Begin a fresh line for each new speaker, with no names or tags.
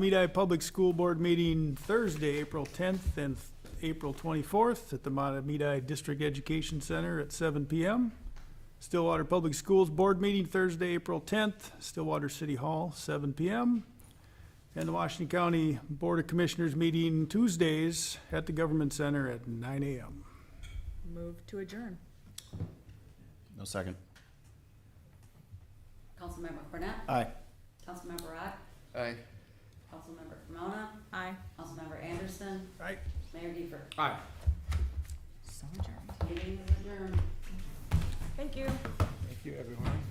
Medai Public School Board meeting Thursday, April 10th and April 24th at the Medai District Education Center at 7 PM. Stillwater Public Schools Board meeting Thursday, April 10th, Stillwater City Hall, 7 PM. And the Washington County Board of Commissioners meeting Tuesdays at the Government Center at 9 AM.
Move to adjourn.
No second.
Councilmember Cornet,
Aye.
Councilmember Rock,
Aye.
Councilmember Pomona,
Aye.
Councilmember Anderson,
Right.
Mayor Giefer.
Aye.
So adjourned.
Meeting is adjourned.
Thank you.
Thank you, everyone.